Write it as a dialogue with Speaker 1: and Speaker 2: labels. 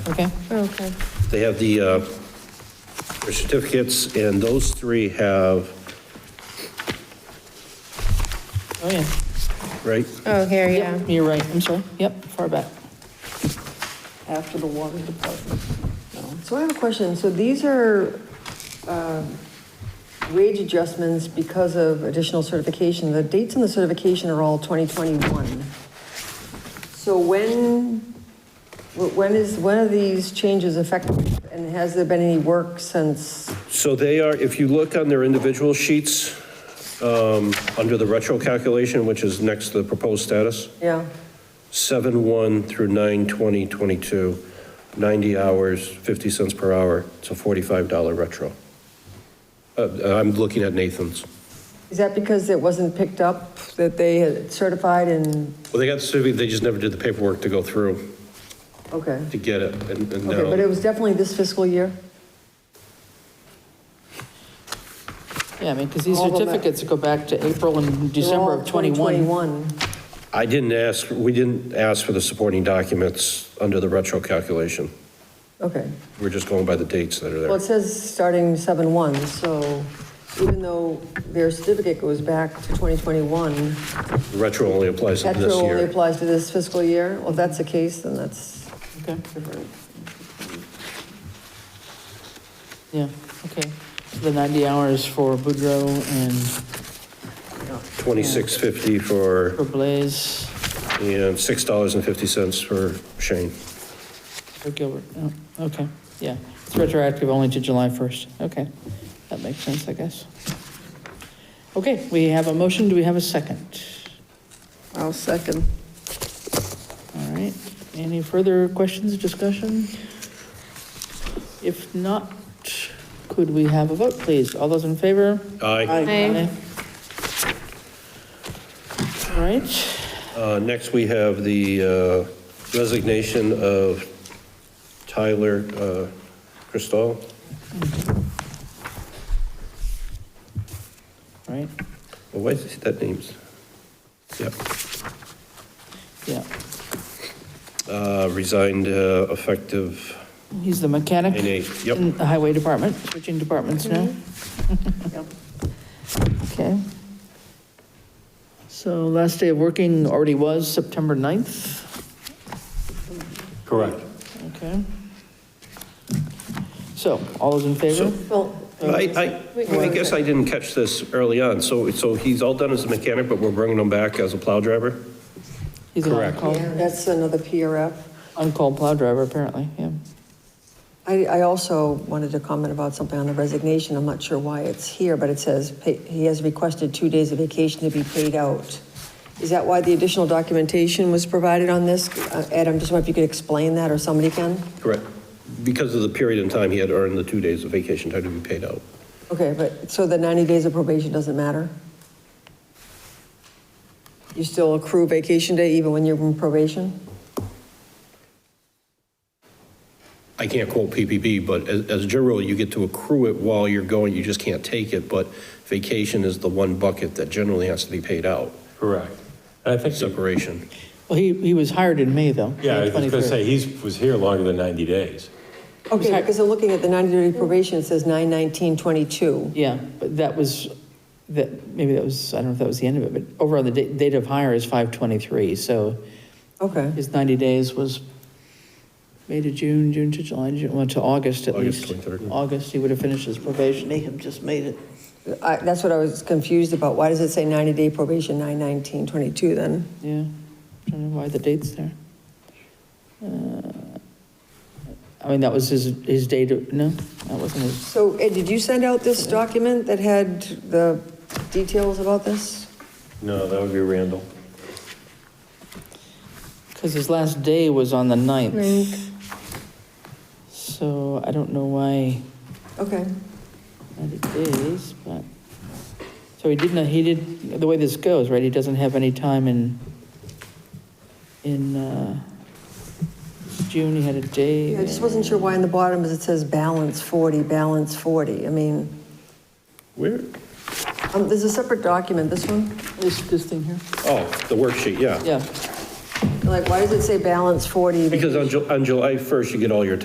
Speaker 1: Okay.
Speaker 2: Okay.
Speaker 3: They have the, uh, their certificates, and those three have,
Speaker 1: Oh, yeah.
Speaker 3: right?
Speaker 2: Oh, here, yeah.
Speaker 1: Yep, You're right, I'm sorry. Yep, far back.
Speaker 4: after the water department. No. So I have a question. So these are um, wage adjustments because of additional certification. The dates in the certification are all 2021. So when, wh- when is, when are these changes effective? And has there been any work since?
Speaker 3: So they are, if you look on their individual sheets, um, under the retro calculation, which is next to the proposed status,
Speaker 4: Yeah,
Speaker 3: 7/1 through 9/20/22, 90 hours, 50 cents per hour, it's a $45 retro. Uh, I'm looking at Nathan's.
Speaker 4: is that because it wasn't picked up, that they had certified and,
Speaker 3: Well, they got the certificate, they just never did the paperwork to go through
Speaker 4: okay.
Speaker 3: to get it, and and
Speaker 4: Okay, but it
Speaker 3: now,
Speaker 4: was definitely this fiscal year?
Speaker 1: Yeah, I mean, because these
Speaker 4: All of that.
Speaker 1: certificates go back to April and
Speaker 4: They're
Speaker 1: December
Speaker 4: all
Speaker 1: of 21.
Speaker 4: 2021.
Speaker 3: I didn't ask, we didn't ask for the supporting documents under the retro calculation.
Speaker 4: Okay.
Speaker 3: We're just going by the dates that are
Speaker 4: Well,
Speaker 3: there.
Speaker 4: it says starting 7/1, so even though their certificate goes back to 2021,
Speaker 3: Retro only applies to
Speaker 4: retro
Speaker 3: this
Speaker 4: only
Speaker 3: year.
Speaker 4: applies to this fiscal year? Well, if that's the case, then that's
Speaker 1: Okay,
Speaker 4: different.
Speaker 1: yeah, okay. So The 90 hours for Boudreaux and
Speaker 3: 2650 for,
Speaker 1: for Blaze,
Speaker 3: and $6.50 for Shane.
Speaker 1: for Gilbert. Oh, Okay, yeah. It's retroactive only to July 1st. Okay, that makes sense, I guess. Okay, we have a motion. Do we have a second?
Speaker 2: I'll second.
Speaker 1: All right. Any further questions, discussion? If not, could we have a vote, please? All those in favor?
Speaker 3: Aye.
Speaker 2: Aye.
Speaker 1: All right.
Speaker 3: Uh, Next, we have the uh, resignation of Tyler uh, Cristal.
Speaker 1: All Right,
Speaker 3: Well, Oh, Why is that name's? Yep.
Speaker 1: yeah.
Speaker 3: Uh, Resigned uh, effective
Speaker 1: He's the mechanic.
Speaker 3: 9/8. Yep.
Speaker 1: In the highway department, switching departments now. Okay. So last day of working already was September 9th,
Speaker 3: Correct.
Speaker 1: okay. So, all those in favor?
Speaker 4: Well,
Speaker 3: I, I, I guess I didn't catch this early on. So, so he's all done as a mechanic, but we're bringing him back as a plow driver?
Speaker 1: He's an
Speaker 3: Correct.
Speaker 1: on-call-
Speaker 4: oh, that's another PRF.
Speaker 1: On-call plow driver, apparently, yeah.
Speaker 4: I, I also wanted to comment about something on the resignation. I'm not sure why it's here, but it says pa- he has requested two days of vacation to be paid out. Is that why the additional documentation was provided on this? Uh, Ed, I'm just wondering if you could explain that, or somebody can?
Speaker 3: Correct. Because of the period in time, he had earned the two days of vacation time to be paid out.
Speaker 4: Okay, but, so the 90 days of probation doesn't matter? You still accrue vacation day even when you're in probation?
Speaker 3: I can't quote PPP, but as, as a general, rule, you get to accrue it while you're going, you just can't take it, but vacation is the one bucket that generally has to be paid out,
Speaker 5: Correct. And I think, the-
Speaker 3: separation.
Speaker 1: Well, he, he was hired in May, though.
Speaker 5: yeah, I
Speaker 1: May
Speaker 5: was going to
Speaker 1: 23rd.
Speaker 5: say, he was here longer than 90 days.
Speaker 4: Okay, because I'm looking at the 90-day probation, it says 9/19/22.
Speaker 1: Yeah, but that was, that, maybe that was, I don't know if that was the end of it, but over on the date, date of hire is 5/23, so
Speaker 4: Okay,
Speaker 1: his 90 days was May to June, June to July, June, well, to August at
Speaker 3: August
Speaker 1: least.
Speaker 3: 23rd.
Speaker 1: August, he would have finished his probation.
Speaker 6: Mayhem just made it.
Speaker 4: I- that's what I was confused about. Why does it say 90-day probation, 9/19/22 then?
Speaker 1: Yeah, I don't know why the date's there. Uh, I mean, that was his, his date, of- no, that wasn't his,
Speaker 4: So Ed, did you send out this document that had the details about this?
Speaker 5: No, that would be Randall.
Speaker 1: because his last day was on the 9th. So I don't know why.
Speaker 4: Okay,
Speaker 1: 90 days, but, so he did not, he did, the way this goes, right, he doesn't have any time in, in uh, June, he had a day.
Speaker 4: Yeah, I just wasn't sure why in the bottom is it says balance 40, balance 40. I mean,
Speaker 3: Where?
Speaker 4: Um, There's a separate document, this one?
Speaker 1: This, this thing here,
Speaker 3: Oh, the worksheet, yeah.
Speaker 1: yeah.
Speaker 4: Like, why does it say balance 40?
Speaker 3: Because on Ju, on July 1st, you get all your